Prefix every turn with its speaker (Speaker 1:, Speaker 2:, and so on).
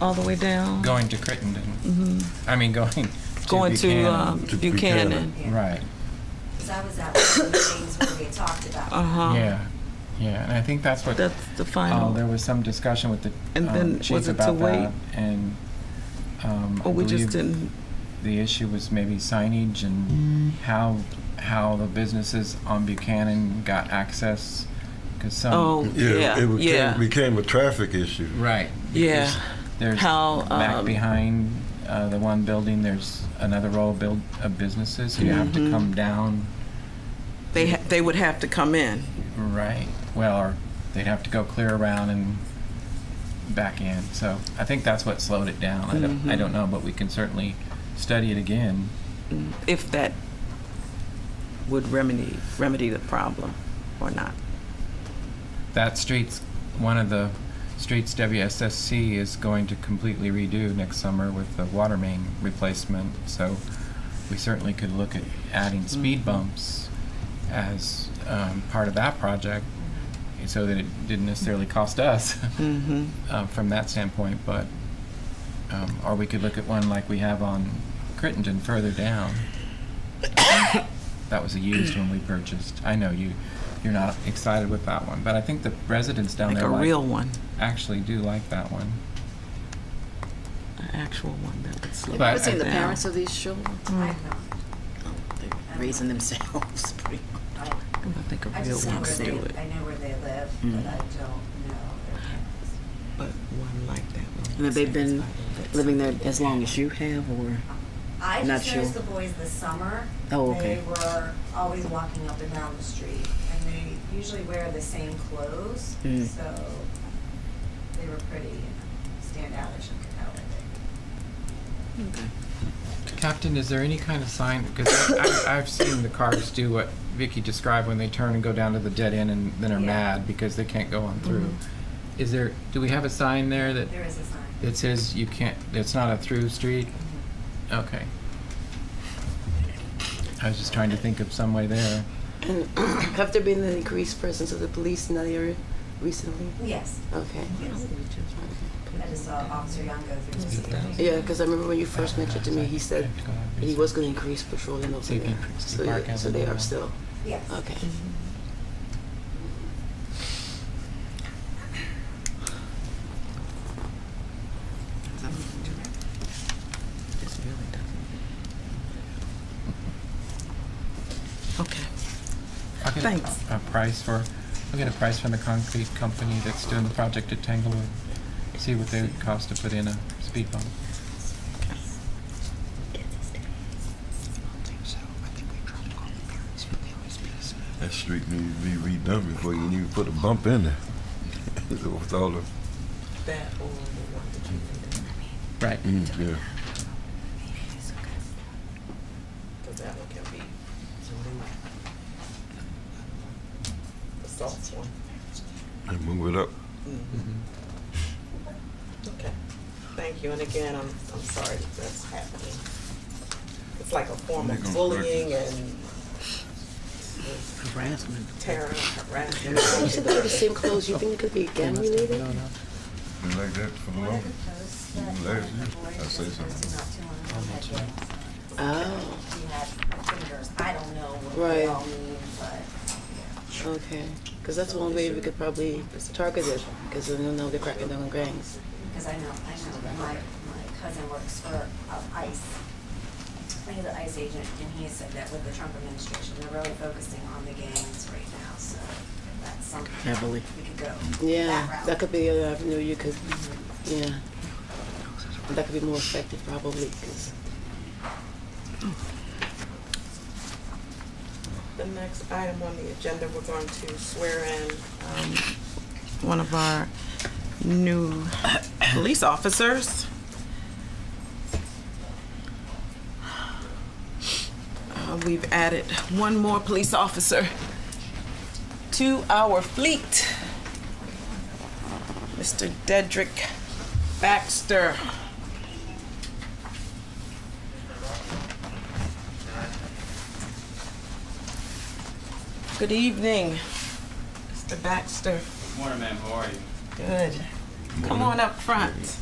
Speaker 1: all the way down?
Speaker 2: Going to Crittenden,
Speaker 1: Mhm.
Speaker 2: I mean, going to
Speaker 1: Going to
Speaker 2: Buchanan.
Speaker 1: um,
Speaker 3: To
Speaker 1: Buchanan?
Speaker 3: Buchanan.
Speaker 2: Right,
Speaker 4: Because I was at one of the meetings where we talked about.
Speaker 1: Uh-huh.
Speaker 2: yeah, yeah, and I think that's what,
Speaker 1: That's the
Speaker 2: oh, there
Speaker 1: final.
Speaker 2: was some discussion with
Speaker 1: And
Speaker 2: the
Speaker 1: then
Speaker 2: um,
Speaker 1: was
Speaker 2: chief
Speaker 1: it to
Speaker 2: about
Speaker 1: wait?
Speaker 2: that, and, um,
Speaker 1: Or
Speaker 2: I
Speaker 1: Oh, we just
Speaker 2: believe
Speaker 1: didn't,
Speaker 2: the issue was maybe signage and how, how the businesses on Buchanan got access, because
Speaker 1: Oh.
Speaker 2: some,
Speaker 1: Yeah,
Speaker 3: Yeah, it
Speaker 1: yeah.
Speaker 3: became, became a traffic issue.
Speaker 2: right,
Speaker 1: yeah,
Speaker 2: There's
Speaker 1: How,
Speaker 2: back
Speaker 1: um,
Speaker 2: behind uh, the one building. There's another row of, build, of businesses. So you have
Speaker 1: Mm-hmm.
Speaker 2: to come down,
Speaker 1: they, ha- they would have to come in.
Speaker 2: right? Well, or they'd have to go clear around and back in. So I think that's what slowed it down. I don't, I don't know, but we can certainly study it again.
Speaker 1: if that would remedy, remedy the problem or not.
Speaker 2: That street's one of the streets WSSC is going to completely redo next summer with the water main replacement. So we certainly could look at adding speed bumps as um, part of that project so that it didn't necessarily cost us
Speaker 1: Mm-hmm.
Speaker 2: uh, from that standpoint. But, um, or we could look at one like we have on Crittenden further down. That was a used one we purchased. I know you, you're not excited with that one, but I think the residents down
Speaker 1: Like
Speaker 2: there
Speaker 1: a
Speaker 2: like-
Speaker 1: real one,
Speaker 2: actually do like that one.
Speaker 1: an actual one that would slow
Speaker 2: But-
Speaker 5: Have
Speaker 1: it
Speaker 5: you seen the
Speaker 1: down.
Speaker 5: parents of these children?
Speaker 4: I don't know.
Speaker 5: They're raising themselves pretty much.
Speaker 4: I don't-
Speaker 1: I think a
Speaker 4: I
Speaker 1: real
Speaker 4: just know
Speaker 1: one
Speaker 4: where
Speaker 1: could
Speaker 4: they,
Speaker 1: do it,
Speaker 4: I know where they live, but I don't know their parents.
Speaker 1: but one like that.
Speaker 5: And
Speaker 1: would
Speaker 5: have they been
Speaker 1: satisfy them.
Speaker 5: living there as long as you have, or?
Speaker 4: Um, I
Speaker 5: Not
Speaker 4: just noticed
Speaker 5: sure.
Speaker 4: the boys this summer.
Speaker 5: Oh, okay.
Speaker 4: They were always walking up and down the street, and they usually wear the same clothes,
Speaker 5: Mm.
Speaker 4: so they were pretty you know, standoutish and could tell that they-
Speaker 2: Captain, is there any kind of sign, because I, I've seen the cars do what Vicky described when they turn and go down to the dead end and then are
Speaker 4: Yeah.
Speaker 2: mad because they can't go on through.
Speaker 1: Mm-hmm.
Speaker 2: Is there, do we have a sign there that,
Speaker 4: There is a sign. Mm-hmm.
Speaker 2: that says you can't, it's not a through street? Okay. I was just trying to think of some way there.
Speaker 6: And have there been an increased presence of the police in that area recently?
Speaker 4: Yes,
Speaker 6: Okay.
Speaker 4: yes. I just saw Officer Young go through the
Speaker 2: Is it that?
Speaker 4: street.
Speaker 6: Yeah, because I remember when you first mentioned to me, he said that he was going to increase patrolling over
Speaker 2: See if he
Speaker 6: there.
Speaker 2: picks the
Speaker 6: So,
Speaker 2: park
Speaker 6: yeah,
Speaker 2: as
Speaker 6: so
Speaker 2: a
Speaker 6: they are
Speaker 2: normal.
Speaker 6: still,
Speaker 4: Yes.
Speaker 6: okay.
Speaker 1: It's really tough. Okay,
Speaker 2: I'll get a-
Speaker 1: Thanks.
Speaker 2: A price for, I'll get a price from the concrete company that's doing the project at Tanglewood, see what they would cost to put in a speed bump.
Speaker 3: That street needs to be redone before you even put a bump in there. With all the,
Speaker 2: Right.
Speaker 3: mm, yeah. And move it up.
Speaker 7: Okay, thank you, and again, I'm, I'm sorry that that's happening. It's like a form of bullying and
Speaker 5: Harassment.
Speaker 7: terror, harassment.
Speaker 6: You said they were the same clothes. You think it could be gang related?
Speaker 3: Been like that for the
Speaker 4: One of the
Speaker 3: longest.
Speaker 4: posts that
Speaker 3: Mm,
Speaker 4: the
Speaker 3: last year,
Speaker 4: boy
Speaker 3: I
Speaker 4: was
Speaker 3: say
Speaker 4: posting
Speaker 3: something.
Speaker 4: not too long ago had been-
Speaker 6: Oh,
Speaker 4: She had fingers, I don't know what they
Speaker 6: Right.
Speaker 4: all mean, but.
Speaker 6: okay. Because that's one way we could probably target it, because we know they're cracking down on gangs.
Speaker 4: because I know, I know that my, my cousin works for um, ICE. He's an ICE agent, and he said that with the Trump administration, they're really focusing on the gangs right now, so that's something.
Speaker 5: Heavily.
Speaker 4: We could go.
Speaker 6: Yeah, that
Speaker 4: route.
Speaker 6: could be another avenue you could, yeah. That could be more effective probably, 'cause-
Speaker 7: The next item on the agenda, we're going to swear in, um,
Speaker 1: one of our new police officers. Uh, We've added one more police officer to our fleet. Mr. Dedrick Baxter. Good evening, Mr. Baxter.
Speaker 8: Morning, ma'am. How are you?
Speaker 1: Good. Come on up front.